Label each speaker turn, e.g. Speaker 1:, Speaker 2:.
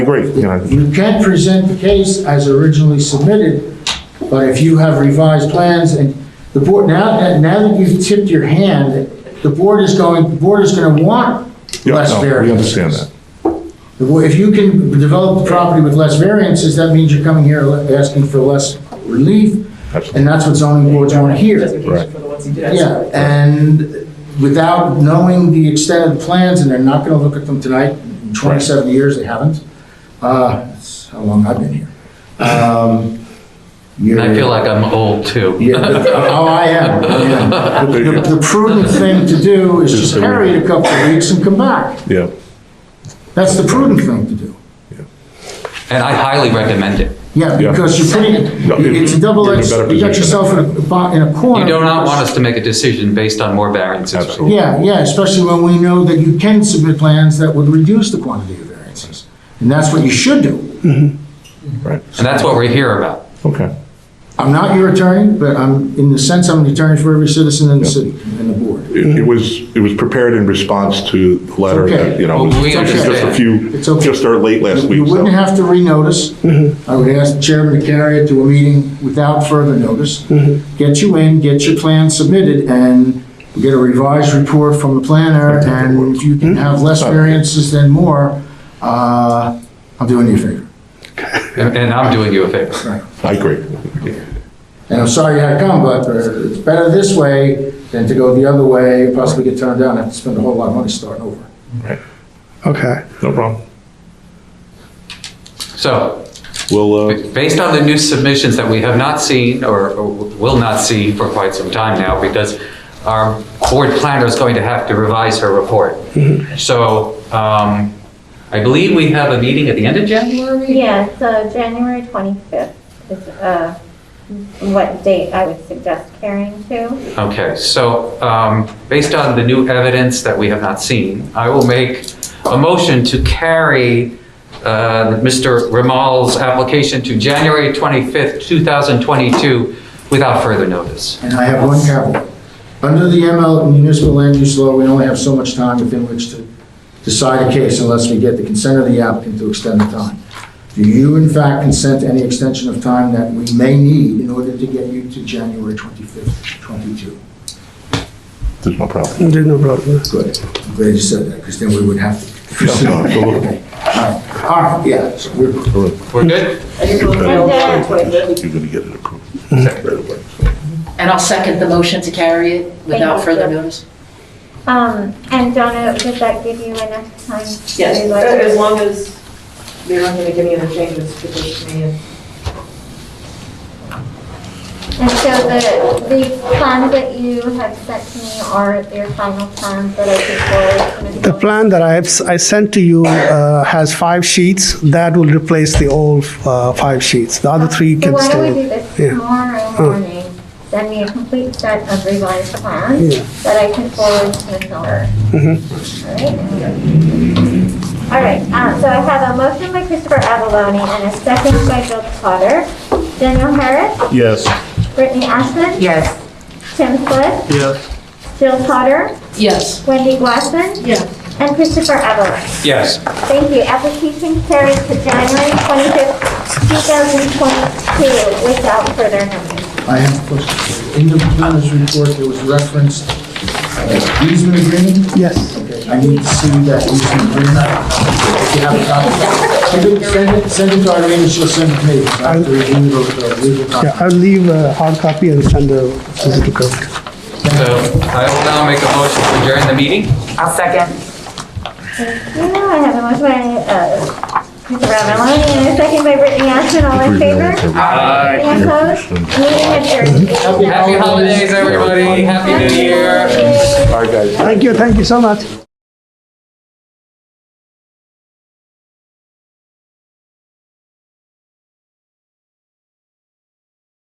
Speaker 1: agree, you know,
Speaker 2: You can present the case as originally submitted, but if you have revised plans and the board, now, that- now that you've tipped your hand, the board is going, the board is gonna want
Speaker 1: yeah,
Speaker 2: less
Speaker 1: no, we
Speaker 2: variances.
Speaker 1: understand that.
Speaker 2: The board- If you can develop the property with less variances, that means you're coming here le- asking for less relief,
Speaker 1: Absolutely.
Speaker 2: and that's what zoning boards wanna hear.
Speaker 1: Right.
Speaker 3: Justification for the ones he did.
Speaker 2: Yeah, and without knowing the extent of the plans, and they're not gonna look at them tonight, In twenty-seven years, they haven't. Uh, that's how long I've been here. Um, you're-
Speaker 4: I feel like I'm old too.
Speaker 2: Yeah, but- oh, I am, I am. The the prudent thing to do is just carry it a couple of weeks and come back.
Speaker 1: Yeah,
Speaker 2: That's the prudent thing to do.
Speaker 4: And I highly recommend it.
Speaker 2: Yeah,
Speaker 1: Yeah.
Speaker 2: because you're putting,
Speaker 1: No, it-
Speaker 2: it's a double
Speaker 1: you're in a
Speaker 2: edged,
Speaker 1: better
Speaker 2: you got
Speaker 1: position.
Speaker 2: yourself in a, bo- in a corner.
Speaker 4: You do not want us to make a decision based on more variances. right?
Speaker 1: Absolutely.
Speaker 2: Yeah, yeah, especially when we know that you can submit plans that would reduce the quantity of variances. And that's what you should do.
Speaker 1: right,
Speaker 4: And that's what we're here about.
Speaker 1: okay.
Speaker 2: I'm not your attorney, but I'm, in the sense, I'm an attorney for every citizen in the city and the board.
Speaker 1: It it was, it was prepared in response to the letter that, you know,
Speaker 4: Okay.
Speaker 1: it was just a
Speaker 4: Okay.
Speaker 1: few,
Speaker 2: It's okay.
Speaker 1: just our late last
Speaker 2: You
Speaker 1: week, so.
Speaker 2: wouldn't have to renotice. I would ask the chairman to carry it to a meeting without further notice. Get you in, get your plan submitted, and we get a revised report from the planner, and if you can have less variances than more, uh, I'm doing you a favor.
Speaker 4: And and I'm doing you a favor.
Speaker 1: I agree.
Speaker 2: And I'm sorry you had to come, but uh, it's better this way than to go the other way, and possibly get turned down, and have to spend a whole lot of money starting over.
Speaker 5: Okay.
Speaker 1: No problem.
Speaker 4: So,
Speaker 1: We'll, uh,
Speaker 4: based on the new submissions that we have not seen or or will not see for quite some time now, because our board planner is going to have to revise her report. So, um, I believe we have a meeting at the end of January?
Speaker 6: Yeah, so January 25th is uh, what date I would suggest carrying to.
Speaker 4: Okay, so um, based on the new evidence that we have not seen, I will make a motion to carry uh, Mr. Ramal's application to January 25th, 2022, without further notice.
Speaker 2: And I have one caveat. Under the ML municipal land use law, we only have so much time within which to decide a case unless we get the consent of the applicant to extend the time. Do you in fact consent to any extension of time that we may need in order to get you to January 25th, 22?
Speaker 1: there's no problem.
Speaker 5: There's no problem.
Speaker 2: Good. I'm glad you said that, because then we would have to. proceed.
Speaker 1: No,
Speaker 2: All
Speaker 1: absolutely.
Speaker 2: right, All right, yeah, so we're,
Speaker 4: We're good?
Speaker 3: I just wrote down
Speaker 6: Yeah.
Speaker 3: 25th.
Speaker 1: You're gonna get it approved right away.
Speaker 7: And I'll second the motion to carry it without
Speaker 6: you,
Speaker 7: further
Speaker 6: sir.
Speaker 7: notice.
Speaker 6: Um, And Donna, does that give you enough time? to
Speaker 3: Yes,
Speaker 6: do
Speaker 3: uh, as
Speaker 6: that?
Speaker 3: long as they're not gonna make any other changes to this man.
Speaker 6: And so the, the plans that you have sent to me are your final plans that I can forward to
Speaker 5: The
Speaker 6: Ms. Moore?
Speaker 5: plan that I have, I sent to you uh, has five sheets. That will replace the old uh, five sheets. The other three
Speaker 6: So
Speaker 5: can
Speaker 6: why don't we do
Speaker 5: stay.
Speaker 6: this
Speaker 5: Yeah.
Speaker 6: tomorrow morning? Send me a complete set of revised
Speaker 5: Yeah. Mm-hmm.
Speaker 6: plans that I can forward to Ms. Miller. All right, uh, so I have a motion by Christopher Avaloni and a second by Bill Potter. Daniel Harris,
Speaker 1: Yes.
Speaker 6: Brittany Ashman. Yes. Tim Flynn,
Speaker 5: Yes.
Speaker 6: Jill Potter,
Speaker 7: Yes.
Speaker 6: Wendy Glassman.
Speaker 7: Yes.
Speaker 6: And Christopher Avaloni.
Speaker 4: Yes.
Speaker 6: Thank you. Application carried to January 25th, 2022 without further notice.
Speaker 2: I have a question. In the planner's report, there was reference uh, easement agreement.
Speaker 5: Yes.
Speaker 2: Okay, I need to see that you can bring that. If you have a copy. Send it, send it, send it to Irene, and she'll send it to me. I have to review the the legal
Speaker 5: Yeah,
Speaker 2: copy.
Speaker 5: I'll leave a hard copy and send a physical copy.
Speaker 4: So I will now make a motion to adjourn the meeting.
Speaker 8: I'll second.
Speaker 6: Thank you. I have a motion by, uh, Mr. Ramalloni and a second by Brittany Ashton. All in favor? Any opposed? Meeting adjourned.
Speaker 4: Happy holidays, everybody. Happy New Year.
Speaker 5: Thank you, thank you so much.